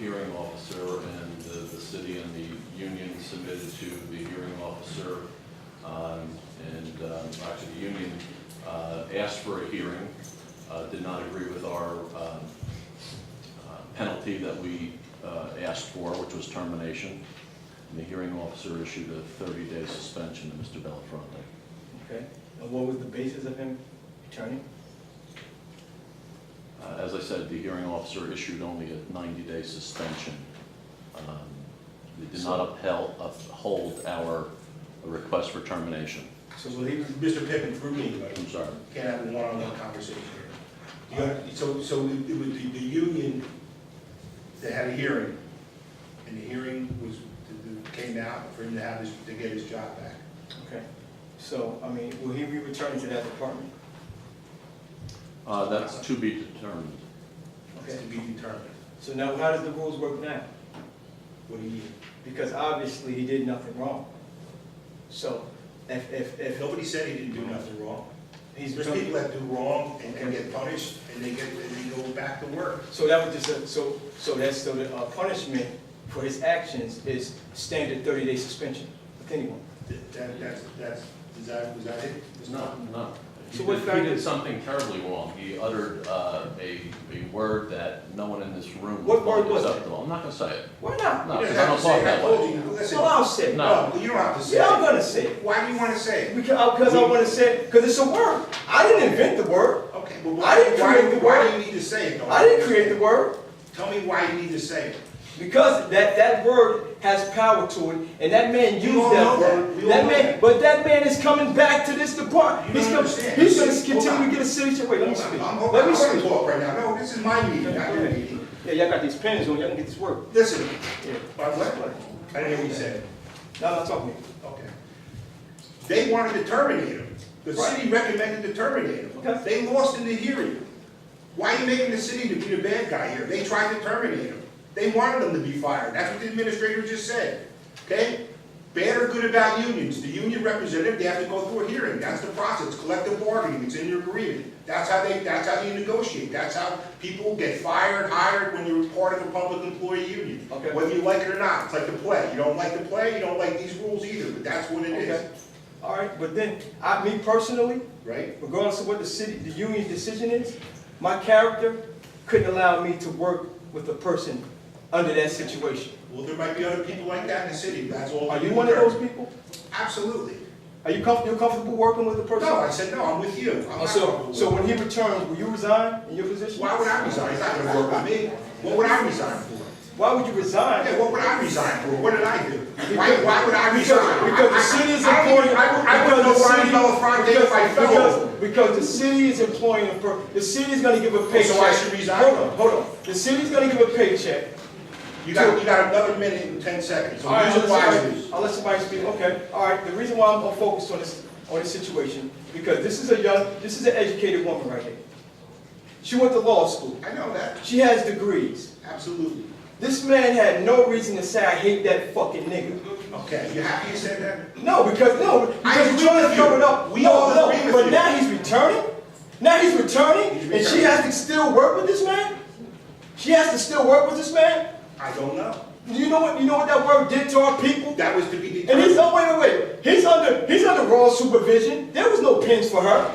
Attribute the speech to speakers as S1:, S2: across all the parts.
S1: hearing officer and the, the city and the union submitted to the hearing officer. Um, and, um, actually, the union, uh, asked for a hearing, uh, did not agree with our, um, uh, penalty that we, uh, asked for, which was termination. And the hearing officer issued a thirty-day suspension to Mr. Belafronte.
S2: Okay, and what was the basis of him returning?
S1: Uh, As I said, the hearing officer issued only a 90-day suspension. Um, It did not upheld- uphold our request for termination.
S3: So will he, Mr. Pippin through me, but
S1: I'm sorry.
S3: can't have a one-on-one conversation here. The other- So, so it was the, the union that had a hearing, and the hearing was, came out for him to have his, to get his job back.
S2: Okay, so, I mean, will he be returning to that department?
S1: Uh, That's to be determined.
S3: It's
S2: Okay,
S3: to be determined.
S2: so now how does the rules work now?
S3: What do you,
S2: Because obviously he did nothing wrong. So if, if,
S3: if
S2: if
S3: nobody said he didn't do nothing wrong,
S2: he's.
S3: there's people that do wrong and and get punished, and they get, and they go back to work.
S2: So that was just, a- so, so that's, so the uh, punishment for his actions is standard thirty-day suspension with anyone.
S3: That, that- that's, that's, is that, was that it?
S1: It's not, no. He
S2: So what
S1: did- he
S2: fact-
S1: did something terribly wrong. He uttered uh, a a word that no one in this room
S2: What
S1: would
S2: word
S1: find
S2: was it?
S1: acceptable. I'm not going to say it.
S2: Why not?
S1: No,
S3: You don't
S1: because I
S3: have
S1: don't
S3: to
S1: talk
S3: say it. I
S1: that
S3: told
S1: way.
S3: you, listen.
S2: So I'll say it.
S1: No.
S3: you don't have to say
S2: Yeah, I'm
S3: it.
S2: gonna say it.
S3: Why do you wanna say it?
S2: Because, because I wanna say, because it's a word. I didn't invent the word.
S3: Okay, but
S2: I
S3: why,
S2: didn't create
S3: why,
S2: the
S3: why
S2: word.
S3: do you need to say it though?
S2: I didn't create the word.
S3: Tell me why you need to say it.
S2: Because that, that word has power to it, and that man used
S3: all
S2: that
S3: know that.
S2: word.
S3: We all
S2: That
S3: know
S2: man,
S3: that.
S2: but that man is coming back to this department.
S3: You
S2: He's
S3: don't
S2: gonna,
S3: understand.
S2: he's gonna
S3: Hold
S2: continue to
S3: on.
S2: get a city. Wait, let me
S3: I'm-
S2: speak.
S3: I'm,
S2: Let
S3: I'm
S2: me
S3: gonna
S2: speak.
S3: talk right now. No, this is my meeting, not your meeting.
S2: Yeah, y'all got these pens on. Y'all can get this work.
S3: Listen,
S2: Yeah.
S3: by what? I didn't hear what you said.
S2: Now I'm not talking. to you.
S3: Okay. They wanted to terminate him. The
S2: Right.
S3: city recommended to terminate him.
S2: Okay.
S3: They lost in the hearing. Why are you making the city to be the bad guy here? They tried to terminate him. They wanted him to be fired. That's what the administrator just said. Okay? Bad or good about unions, the union representative, they have to go through a hearing. That's the process, collective bargaining, it's in your agreement. That's how they, that's how you negotiate. That's how people get fired, hired when you're part of a public employee union.
S2: Okay.
S3: Whether you like it or not, it's like the play. You don't like the play, you don't like these rules either, but that's what it
S2: Okay.
S3: is,
S2: All right, but then, I, me personally,
S3: right?
S2: regardless of what the city, the union decision is, my character couldn't allow me to work with a person under that situation.
S3: Well, there might be other people like that in the city, that's all.
S2: Are you one of those people?
S3: Absolutely.
S2: Are you comfortable, you're comfortable working with a person?
S3: No, I said, no, I'm with you. I'm
S2: Oh,
S3: not
S2: So,
S3: comfortable
S2: so
S3: with
S2: when he returns, will you resign in your position?
S3: Why would I resign? It's not gonna work with me. What would I resign for?
S2: Why would you resign?
S3: Yeah, what would I resign for? What did I do? Why, why would I
S2: Because,
S3: resign?
S2: because the city is
S3: I- I- I-
S2: employing.
S3: I would- I would
S2: because
S3: know
S2: the
S3: Ryan
S2: city-
S3: Belafonte if I
S2: because-
S3: fell
S2: because-
S3: over.
S2: Because the city is employing, a per- the city's gonna give a paycheck.
S3: Oh, so I should resign?
S2: Hold on, hold on. The city's gonna give a paycheck.
S3: You got, you got another minute and ten seconds, so
S2: All right,
S3: use
S2: I'll
S3: it
S2: let somebody-
S3: wisely.
S2: I'll let somebody speak, okay. All right, the reason why I'm I'm focused on this, on this situation, because this is a young, this is an educated woman right here. She went to law school.
S3: I know that,
S2: She has degrees.
S3: absolutely.
S2: This man had no reason to say, I hate that fucking nigga.
S3: Okay, you happy you said that?
S2: No, because no,
S3: I
S2: because
S3: agree
S2: you're trying to
S3: with you.
S2: cover it up.
S3: We
S2: No,
S3: all
S2: no,
S3: agree with
S2: But
S3: you.
S2: now he's returning. Now he's returning,
S3: He's
S2: and she
S3: returning.
S2: has to still work with this man. She has to still work with this man.
S3: I don't know.
S2: You know what? You know what that word did to our people.
S3: That was to be
S2: And he's
S3: determined.
S2: oh wait, wait, wait. He's under he's under raw supervision. There was no pins for her.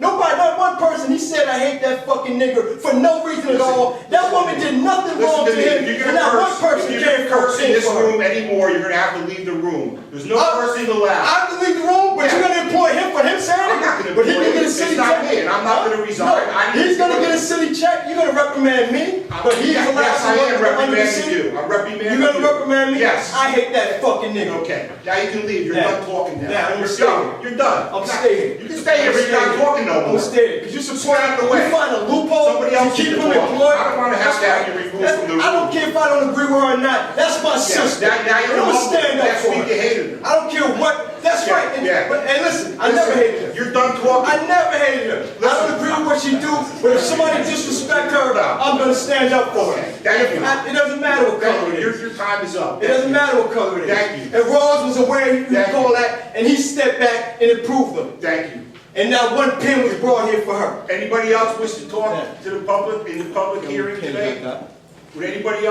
S2: Nobody, not one person. He said, "I hate that fucking nigger" for no reason at
S3: Listen,
S2: all. That woman did nothing
S3: Listen
S2: wrong to
S3: to me, if
S2: him,
S3: you're
S2: and
S3: gonna
S2: not one
S3: curse, if
S2: person
S3: you're
S2: cared
S3: gonna
S2: for
S3: curse in
S2: pins
S3: this
S2: for her.
S3: room anymore, you're gonna have to leave the room. There's no
S2: I-
S3: cursing allowed.
S2: Uh, I believe the wrong, but you're gonna employ him for him saying it?
S3: I'm not gonna
S2: But he
S3: employ
S2: can get a
S3: him.
S2: city
S3: It's not
S2: check.
S3: me, and I'm not gonna resign.
S2: No,
S3: I need
S2: He's
S3: to-
S2: gonna get a city check, you're gonna reprimand me, but he's
S3: Yes,
S2: allowed to.
S3: yes, I am
S2: work under the city?
S3: reprimanding you. I'm reprimanding
S2: You're gonna
S3: you.
S2: reprimand me?
S3: Yes.
S2: I hate that fucking nigga.
S3: Okay, now you can leave, you're
S2: Now-
S3: done talking now.
S2: now, I'm
S3: You're
S2: staying.
S3: done. You're done.
S2: I'm
S3: Not-
S2: staying.
S3: You can stay here,
S2: I'm
S3: but you're not
S2: staying.
S3: talking no more.
S2: I'm staying, 'cause you
S3: support out of the way.
S2: You find a loophole
S3: Somebody
S2: to
S3: else
S2: keep
S3: can
S2: him
S3: talk.
S2: employed.
S3: I don't wanna have to have you removed
S2: That's-
S3: from the
S2: I don't
S3: room.
S2: care if I don't agree with her or not, that's my sister.
S3: now- now
S2: I'm
S3: you're
S2: gonna
S3: humble.
S2: stand up
S3: Last
S2: for
S3: week
S2: her.
S3: you hated her.
S2: I don't care what, that's
S3: Yeah,
S2: right, and,
S3: yeah.
S2: but, and listen, I never
S3: Listen,
S2: hated her.
S3: You're done talking.
S2: I never hated her. I don't agree with what she do, but if somebody disrespect her, I'm gonna stand up for her.
S3: Thank you.
S2: I- It doesn't matter what color it
S3: Thank you. Your,
S2: is.
S3: your time is up.
S2: It doesn't matter what color it is.
S3: Thank you.
S2: And Rawls was aware he was
S3: Thank you.
S2: call that, and he stepped back and approved them.
S3: Thank you.
S2: And not one pin was brought here for her.
S3: Anybody else wish to
S2: Yeah.
S3: talk to the public in the public hearing
S2: Pin
S3: today?
S2: got that.
S3: Would anybody else